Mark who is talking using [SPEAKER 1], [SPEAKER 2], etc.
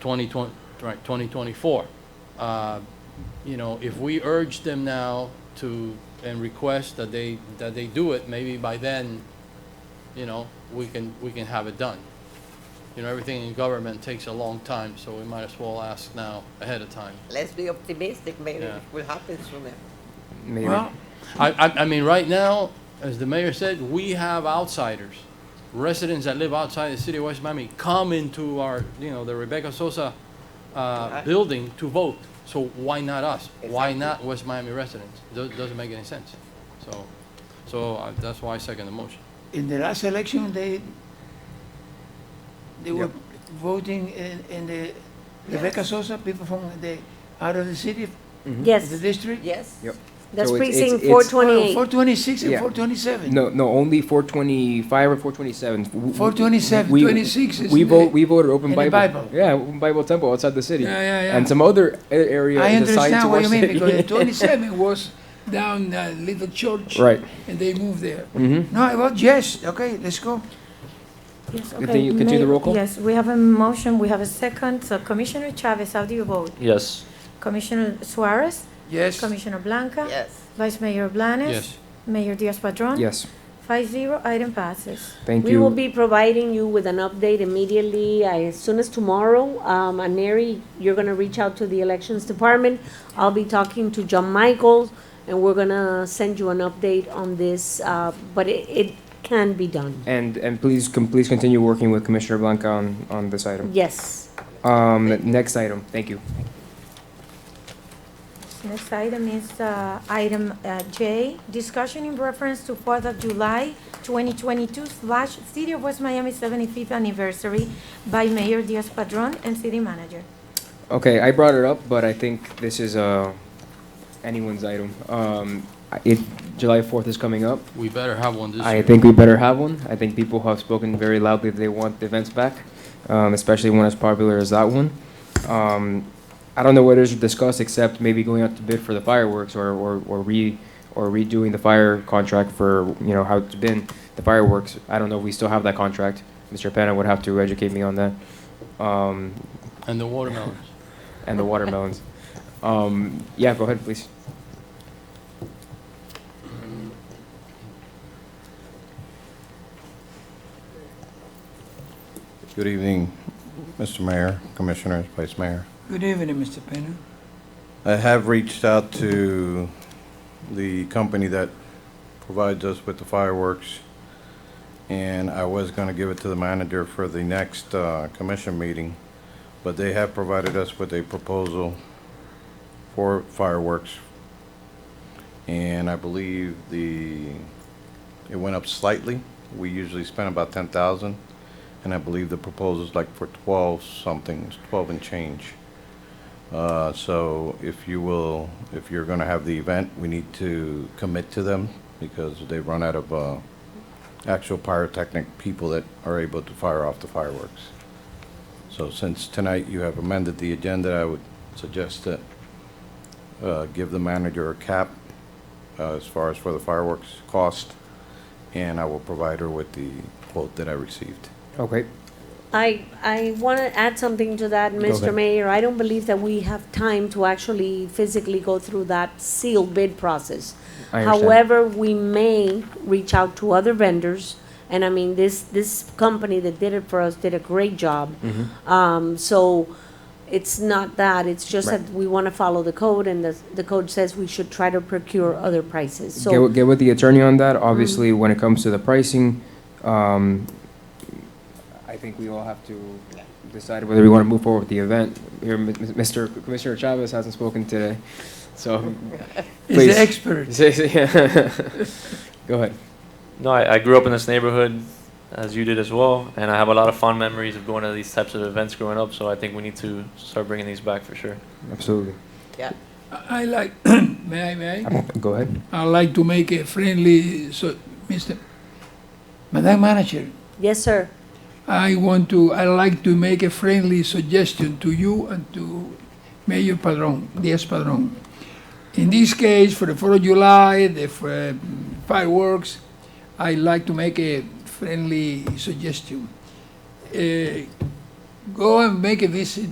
[SPEAKER 1] 2020, right, 2024. Uh, You know, if we urge them now to, and request that they, that they do it, maybe by then, you know, we can, we can have it done. You know, everything in government takes a long time, so we might as well ask now, ahead of time.
[SPEAKER 2] Let's be optimistic, maybe
[SPEAKER 1] Yeah.
[SPEAKER 2] it will happen sooner.
[SPEAKER 3] Maybe.
[SPEAKER 1] Well, I, I, I mean, right now, as the mayor said, we have outsiders, residents that live outside the city of West Miami, come into our, you know, the Rebecca Sosa, uh,
[SPEAKER 2] Right.
[SPEAKER 1] building to vote. So why not us? Why
[SPEAKER 2] Exactly.
[SPEAKER 1] not West Miami residents? Does, doesn't make any sense. So, so uh, that's why I second the motion.
[SPEAKER 4] In the last election, they, they were
[SPEAKER 3] Yep.
[SPEAKER 4] voting in, in the Rebecca Sosa, people from the, out of the city, the
[SPEAKER 5] Yes,
[SPEAKER 4] district.
[SPEAKER 2] Yes?
[SPEAKER 3] Yep.
[SPEAKER 5] that's
[SPEAKER 3] Hmm? So it's-
[SPEAKER 5] precinct
[SPEAKER 3] it's-
[SPEAKER 5] four
[SPEAKER 3] it's-
[SPEAKER 4] Oh, Four
[SPEAKER 5] twenty-eight.
[SPEAKER 4] twenty-six and
[SPEAKER 3] Yeah.
[SPEAKER 4] four twenty-seven.
[SPEAKER 3] No, no, only four twenty-five or four twenty-seven.
[SPEAKER 4] 427, 26 is
[SPEAKER 3] We
[SPEAKER 4] in the-
[SPEAKER 3] vote, we voted Open
[SPEAKER 4] in the
[SPEAKER 3] Bible.
[SPEAKER 4] Bible.
[SPEAKER 3] Yeah, Open Bible Temple outside the city.
[SPEAKER 4] Yeah, yeah, yeah.
[SPEAKER 3] And some other a- area
[SPEAKER 4] I
[SPEAKER 3] is assigned to
[SPEAKER 4] understand
[SPEAKER 3] our
[SPEAKER 4] what you mean, because the
[SPEAKER 3] city.
[SPEAKER 4] twenty-seven was down uh little church.
[SPEAKER 3] Right.
[SPEAKER 4] And they moved there.
[SPEAKER 3] Mhm.
[SPEAKER 4] No, I vote yes, okay, let's go.
[SPEAKER 5] Yes,
[SPEAKER 3] Continue-
[SPEAKER 5] okay,
[SPEAKER 3] continue the
[SPEAKER 5] Mayor-
[SPEAKER 3] roll call?
[SPEAKER 5] Yes, we have a motion, we have a second. So Commissioner Chavez, how do you vote?
[SPEAKER 6] Yes.
[SPEAKER 5] Commissioner Suarez?
[SPEAKER 4] Yes,
[SPEAKER 5] Commissioner Blanca?
[SPEAKER 2] Yes.
[SPEAKER 5] Vice Mayor Blanes?
[SPEAKER 1] Yes.
[SPEAKER 5] Mayor Diaz-Padrón?
[SPEAKER 3] Yes,
[SPEAKER 5] Five zero, item passes.
[SPEAKER 3] thank
[SPEAKER 7] We will
[SPEAKER 3] you.
[SPEAKER 7] be providing you with an update immediately, uh, as soon as tomorrow. Um, and Neri, you're gonna reach out to the elections department. I'll be talking to John Michael, and we're gonna send you an update on this, uh, but it, it can be done.
[SPEAKER 3] And, and please, com- please continue working with Commissioner Blanca on, on this item.
[SPEAKER 7] Yes.
[SPEAKER 3] Um, next item, thank you.
[SPEAKER 5] Next item is uh, item uh, J, discussion in reference to Fourth of July 2022 slash City of West Miami 75th Anniversary by Mayor Diaz-Padrón and City Manager.
[SPEAKER 3] Okay, I brought it up, but I think this is, uh, anyone's item. Um, it, July fourth is coming up.
[SPEAKER 1] We better have one this year.
[SPEAKER 3] I think we better have one. I think people have spoken very loudly that they want the events back, um, especially one as popular as that one. Um, I don't know what it is to discuss except maybe going out to bid for the fireworks or, or, or re or redoing the fire contract for you know how it's been the fireworks. I don't know if we still have that contract. Mr. Penna would have to educate me on that. Um,
[SPEAKER 1] And the watermelons.
[SPEAKER 3] and the watermelons. Um, yeah, go ahead, please.
[SPEAKER 8] Good evening, Mr. Mayor, Commissioners, Vice Mayor.
[SPEAKER 4] good evening, Mr. Penna.
[SPEAKER 8] I have reached out to the company that provides us with the fireworks, and I was going to give it to the manager for the next uh, commission meeting, but they have provided us with a proposal for fireworks, and I believe the, it went up slightly. We usually spend about 10,000, and I believe the proposal's like for 12 something, it's 12 and change. Uh, So if you will, if you're going to have the event, we need to commit to them because they've run out of uh, actual pyrotechnic people that are able to fire off the fireworks. So since tonight you have amended the agenda, I would suggest that uh, give the manager a cap uh, as far as for the fireworks cost, and I will provide her with the quote that I received.
[SPEAKER 3] Okay.
[SPEAKER 7] I, I want to add something to that, Mr.
[SPEAKER 8] ahead.
[SPEAKER 7] Mayor. I don't believe that we have time to actually physically go through that sealed bid process.
[SPEAKER 3] I understand.
[SPEAKER 7] However, we may reach out to other vendors, and I mean, this, this company that did it for us did a great job.
[SPEAKER 3] Mm. Mm-hmm.
[SPEAKER 7] Um, so it's not that, it's just
[SPEAKER 3] Right.
[SPEAKER 7] that we want to follow the code, and the, the code says we should try to procure other prices, so.
[SPEAKER 3] get, with- get with the attorney on that. Obviously, when it comes to the pricing, um, I think we all have to decide whether we want to move forward with the event. Here, M- M- Mr. Commissioner Chavez hasn't spoken today, so
[SPEAKER 4] He's
[SPEAKER 3] Please.
[SPEAKER 4] the expert.
[SPEAKER 3] go ahead.
[SPEAKER 6] No, I, I grew up in this neighborhood, as you did as well, and I have a lot of fond memories of going to these types of events growing up. So I think we need to start bringing these back for sure.
[SPEAKER 3] Absolutely.
[SPEAKER 2] Yeah.
[SPEAKER 9] I like, may I, may I?
[SPEAKER 3] Go ahead.
[SPEAKER 9] I like to make a friendly, so, Mr.,
[SPEAKER 4] Madam Manager,
[SPEAKER 7] Yes, sir.
[SPEAKER 9] I want to, I like to make a friendly suggestion to you and to Mayor Padron, Diaz Padron. In this case, for the Fourth of July, the f- fireworks, I like to make a friendly suggestion. Eh, Uh, Go and make a visit